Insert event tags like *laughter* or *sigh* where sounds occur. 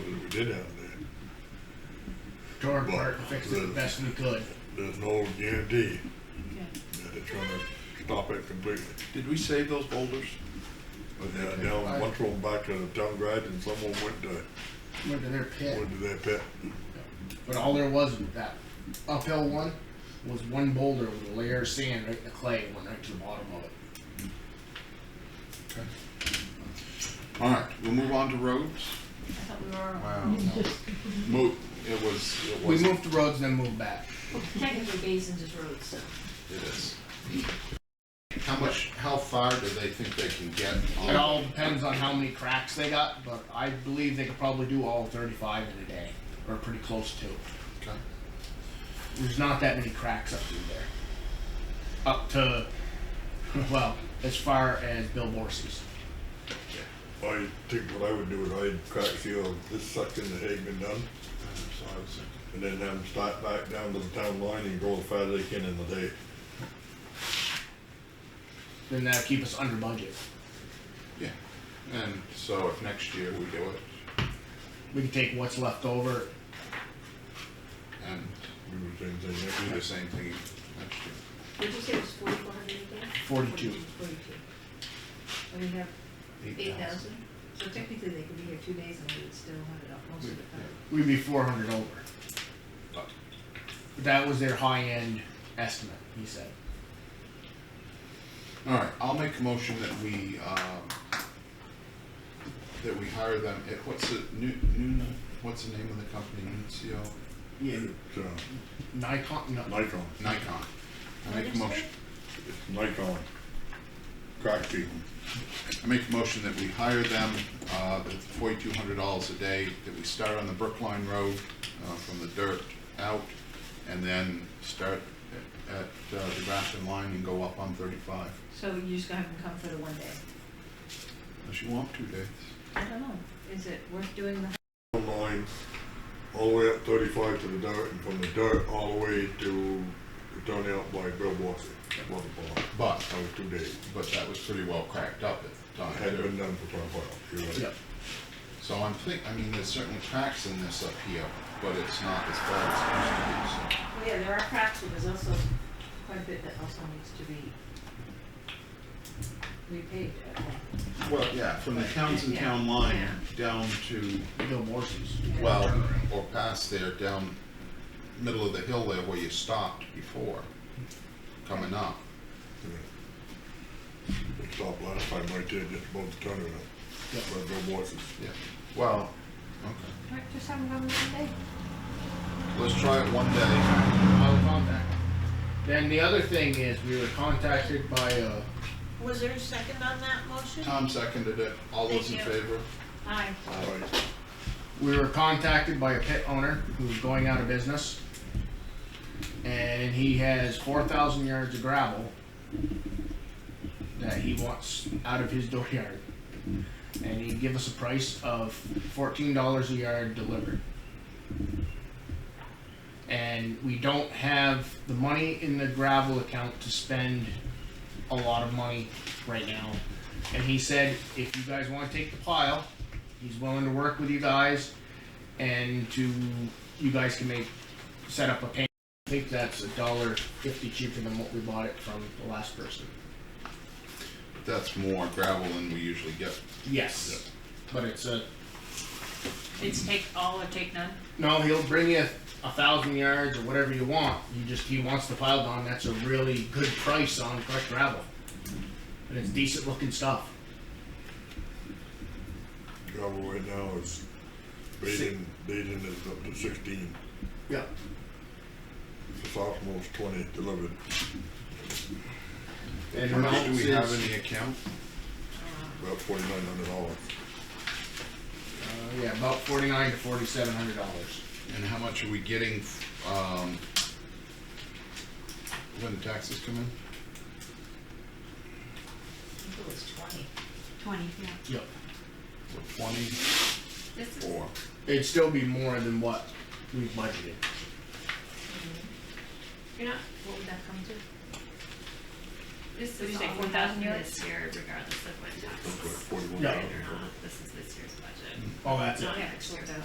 did have to tore apart and fixed it the best we could. do. There's no guarantee Okay. that they're trying to stop it completely. Did we save those boulders? But now, now, one thrown back to the town garage and someone went to, Went to their pit, went to their pit. but all there was with that uphill one was one boulder with a layer of sand right in the clay, and went right to the bottom of it. All right, we'll move on to roads. I thought we were. Wow. Mo, it was, it We was, moved the roads and then moved back. Technically, Basin's is road, so. it is. How much, how far do they think they can get? It all depends on how many cracks they got, but I believe they could probably do all 35 in a day, or pretty close to. Okay. There's not that many cracks up through there. Up to, *laughs* well, as far as Bill Borsi's. I think what I would do is I'd crack seal this section that had been done So I was thinking, and then have them start back down to the town line and go as fast as they can in the day. Then that'll keep us under budget. Yeah, and so if next year we do it, We can take what's left over. and We were saying thing next do year. the same thing next year. Did you say it was forty-four hundred again? 42. Forty-two. And we have eight thousand, so technically they could be here two days and we would still have it up most of the time. We'd be 400 over. That was their high end estimate, he said. All right, I'll make a motion that we, um, that we hire them, at- what's the, new, new, what's the name of the company, Nuncio? Yeah. It's, uh, Nikon, no, Nikon, Nikon. I What make a is motion, it's Nikon. Crack seal. I make a motion that we hire them, uh, at forty-two hundred dollars a day, that we start on the Brookline Road, uh, from the dirt out, and then start at, at uh, the Grafton line and go up on thirty-five. So you're just gonna have them come for the one day? Unless you want two days. I don't know, is it worth doing the, Town line, all the way up thirty-five to the dirt and from the dirt all the way to, down out by Bill Borsi. Water plant. But, That was two days. but that was pretty well cracked up at the time. Had been done for quite a while, you're right. Yep. So I'm think, I mean, there's certainly cracks in this up here, but it's not as bad as it used to be, well, yeah, there are cracks, but there's also quite a bit that also needs to be repaid at one. so. Well, yeah, from the Townsend Yeah, Town line yeah. down to, Bill Borsi's. well, or past there, down middle of the hill there where you stopped before, coming up. Yeah. It Stopped last time right there, just above the turnaround. Yep. By Bill Borsi's. Yeah, well, okay. Right, just have them come one day? Let's try it one day. I'll contact. Then the other thing is, we were contacted by a Was there a second on that motion? Tom seconded it. All those in Thank you. favor? Aye. Right. we were contacted by a pit owner who's going out of business. And he has four thousand yards of gravel that he wants out of his dooryard. And he'd give us a price of fourteen dollars a yard delivered. And we don't have the money in the gravel account to spend a lot of money right now. And he said, if you guys wanna take the pile, He's willing to work with you guys and to, you guys can make, set up a payment. I think that's a dollar fifty cheaper than what we bought it from the last person. That's more gravel than we usually get. Yes. But it's a, It's take all or take none? no, he'll bring you a thousand yards or whatever you want. You just, he wants the pile gone. That's a really good price on crushed gravel. And it's decent looking stuff. Gravel right now is, Baden, Baden is up to sixteen, Yeah. the sophomore's twenty delivered. And Marcus, do amounts we have is, any account? About forty-nine hundred dollars. uh, yeah, about forty-nine to forty-seven hundred dollars. And how much are we getting, um, when the taxes come in? I think it was twenty. Twenty, yeah. Yep. So twenty This is, or, It'd still be more than what we budgeted. you're not, what would that come to? This Would you is say all we 4,000 have for yards? this year regardless of what taxes Forty-one Yeah. are thousand. not. This is this year's budget. Oh, that's Not next year's budget.